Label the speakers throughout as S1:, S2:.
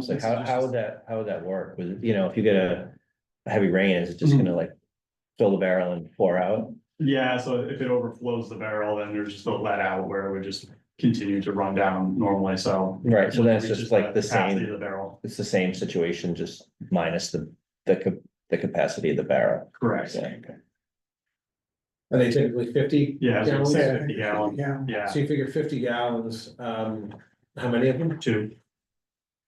S1: So how, how would that, how would that work? With, you know, if you get a a heavy rain, is it just
S2: Mhm.
S1: gonna like fill the barrel and pour out?
S2: Yeah, so if it overflows the barrel, then there's just a let out where it would just continue to run down normally, so.
S1: Right, so that's just
S2: Reaches
S1: like the
S2: capacity of
S1: same,
S2: The barrel,
S1: it's the same situation, just minus the, the, ca- the capacity of the barrel.
S2: correct.
S1: Yeah.
S3: Are they typically fifty?
S2: Yeah, so it's
S3: gallons?
S4: Yeah.
S2: fifty gallon,
S4: Yeah.
S2: yeah,
S3: So you figure fifty gallons, um, how many of them?
S2: two,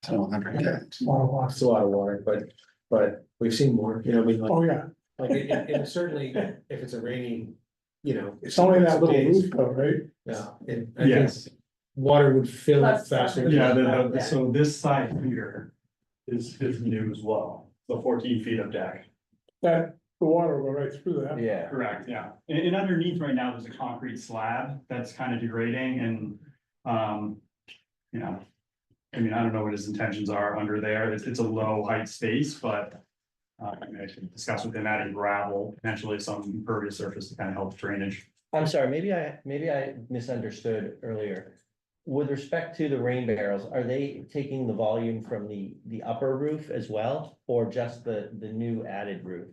S5: So hundred gallons.
S4: Water loss.
S3: It's a lot of water, but, but we've seen more, you know, I mean, like,
S4: Oh, yeah,
S3: like, it- it- and certainly if it's a rainy, you know.
S4: it's only that little
S3: days,
S4: roof though, right?
S3: Yeah, and I think
S2: Yes.
S3: water would fill up
S6: Plus-
S3: faster.
S2: yeah, the- the- so this side here is, is new as well, the fourteen feet of deck.
S4: That, the water will go right through that.
S1: Yeah,
S2: Correct, yeah. And, and underneath right now, there's a concrete slab that's kind of degrading and, um, you know. I mean, I don't know what his intentions are under there. It's, it's a low height space, but. Uh, I mean, I should discuss with him adding gravel, potentially some impervious surface to kind of help drainage.
S1: I'm sorry, maybe I, maybe I misunderstood earlier. With respect to the rain barrels, are they taking the volume from the, the upper roof as well? Or just the, the new added roof?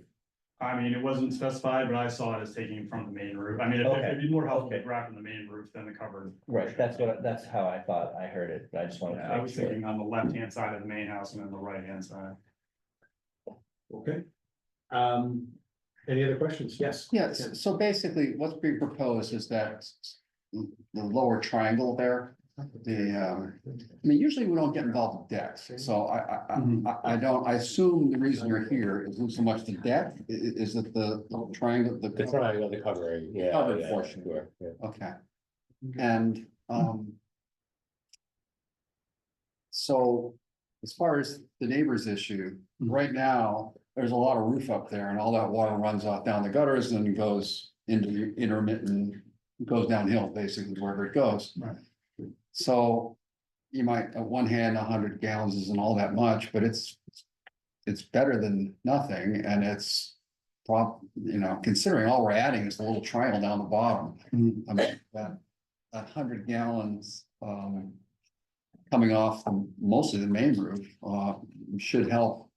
S2: I mean, it wasn't specified, but I saw it as taking from the main roof. I mean, it'd- it'd be more helpful to
S1: Okay.
S2: grab from the main roof than the covered.
S1: Right, that's what, I- that's how I thought I heard it, I just wanted
S2: Yeah, I
S1: to make
S2: was
S1: sure.
S2: thinking on the left-hand side of the main house and then the right-hand side.
S3: Okay. Um, any other questions? Yes.
S5: Yes, so basically what's being proposed is that the lower triangle there, the, um, I mean, usually we don't get involved with decks, so I, I, I- I, I don't, I assume the reason you're here isn't so much the deck, i- i- is it the little triangle,
S7: The
S5: the,
S7: triangle, the covering, yeah.
S5: Covered
S7: yeah,
S5: portion.
S7: sure, yeah.
S5: okay. And, um. So, as far as the neighbor's issue, right now, there's a lot of roof up there and all that water runs off down the gutters and goes into the intermittent. Goes downhill basically wherever it goes.
S2: Right.
S5: So you might, on one hand, hundred gallons isn't all that much, but it's. It's better than nothing and it's prob, you know, considering all we're adding is the little triangle down the bottom.
S2: Mhm.
S5: I mean, that, that hundred gallons, um. Coming off the- mostly the main roof, uh, should help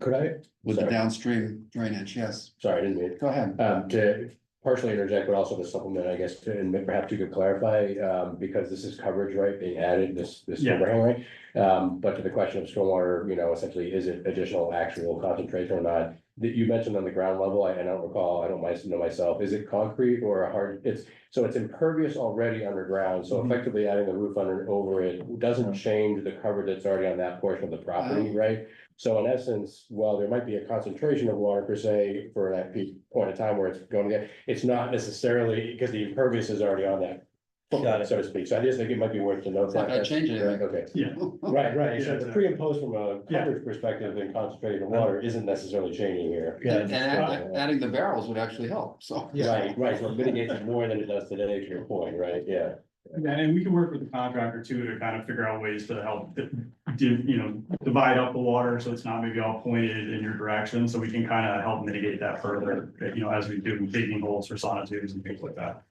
S7: Could I,
S5: with the
S7: Sorry.
S5: downstream drainage, yes,
S7: sorry, I didn't mean,
S5: go ahead.
S7: um, to partially interject, but also to supplement, I guess, to- and perhaps you could clarify, um, because this is coverage, right, being added, this, this
S2: Yeah.
S7: overhang, right? Um, but to the question of stormwater, you know, essentially, is it additional actual concentration or not? That you mentioned on the ground level, I, I don't recall, I don't my- know myself, is it concrete or a hard, it's, so it's impervious already underground, so
S2: Mhm.
S7: effectively adding the roof under, over it doesn't change the cover that's already on that portion of the property, right? So in essence, while there might be a concentration of water per se for that peak point of time where it's going to get, it's not necessarily, because the impervious is already on that.
S1: Got it.
S7: So to speak, so I just think it might be worth to note
S5: It's not
S7: that.
S5: gonna change anything.
S7: Okay,
S2: Yeah.
S7: right, right, so
S2: Yeah,
S7: the pre and post from a
S2: Yeah.
S7: coverage perspective and concentrating the water isn't necessarily changing here.
S1: Yeah,
S5: And add- adding the barrels would actually help, so.
S3: Yeah.
S7: Right, right, so it mitigates more than it does today, to your point, right, yeah.
S2: Yeah, and we can work with the contractor too to kind of figure out ways to help, di- div- you know, divide up the water so it's not maybe all pointed in your direction. So we can kind of help mitigate that further, you know, as we do digging holes for sonotubes and things like that.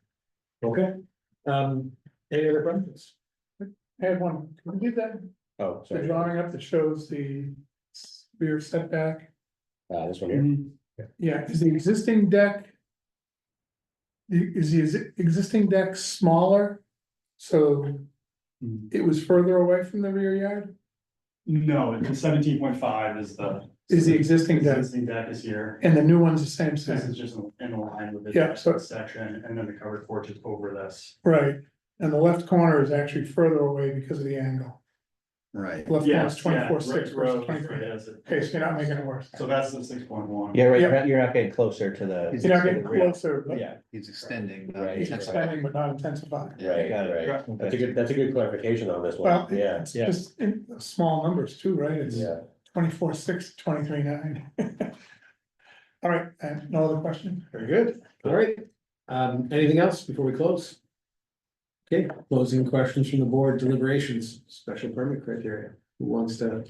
S3: Okay, um, any other questions?
S4: I had one, can we get that,
S7: Oh,
S4: the
S7: sorry, uh,
S4: drawing up that shows the rear setback?
S7: Uh, this one here,
S2: Mm,
S4: Yeah, is the existing deck? the- Is the exi- existing deck smaller? So it was further away from the rear yard?
S2: No, seventeen point five is the.
S4: Is the existing deck,
S2: Existing deck is here.
S4: and the new one's the same
S2: This
S4: size,
S2: is just in line with
S4: Yeah, so-
S2: the section and then the covered porch is over this.
S4: right? And the left corner is actually further away because of the angle.
S5: Right.
S4: Left corner is
S2: Yes, yeah,
S4: twenty-four six
S2: Rick's
S4: versus
S2: Road,
S4: twenty-three.
S2: right, that's it.
S4: Okay, so you're not making it worse.
S2: So that's the six point one.
S1: Yeah, right,
S4: Yeah.
S1: you're not- you're not getting closer to the.
S4: You're not getting
S1: to the real-
S4: closer, but
S1: Yeah,
S5: He's extending. uh,
S7: Right.
S4: it's
S5: intensifying.
S4: expanding but not intensifying.
S7: right,
S1: got it.
S7: right, that's a
S1: Okay.
S7: good, that's a good clarification on this
S4: Well,
S7: one, yeah,
S4: it's
S1: yeah.
S4: just in small numbers too, right? It's
S7: yeah.
S4: twenty-four, six, twenty-three, nine. All right, and no other question?
S3: Very good, all right. Um, anything else before we close? Okay, closing questions from the board deliberations, special permit criteria, who wants to?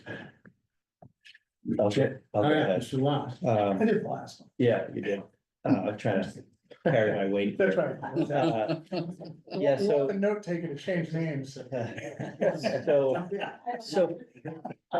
S1: I'll get- I'll
S3: All
S1: get
S3: right,
S1: that.
S3: Mr. Lot.
S1: Um,
S4: I did the last one.
S1: yeah, you did. Uh, I'm trying to carry my weight.
S4: That's right.
S1: Uh, Yeah,
S4: We want
S1: so-
S4: The note taken to change names.
S1: So, so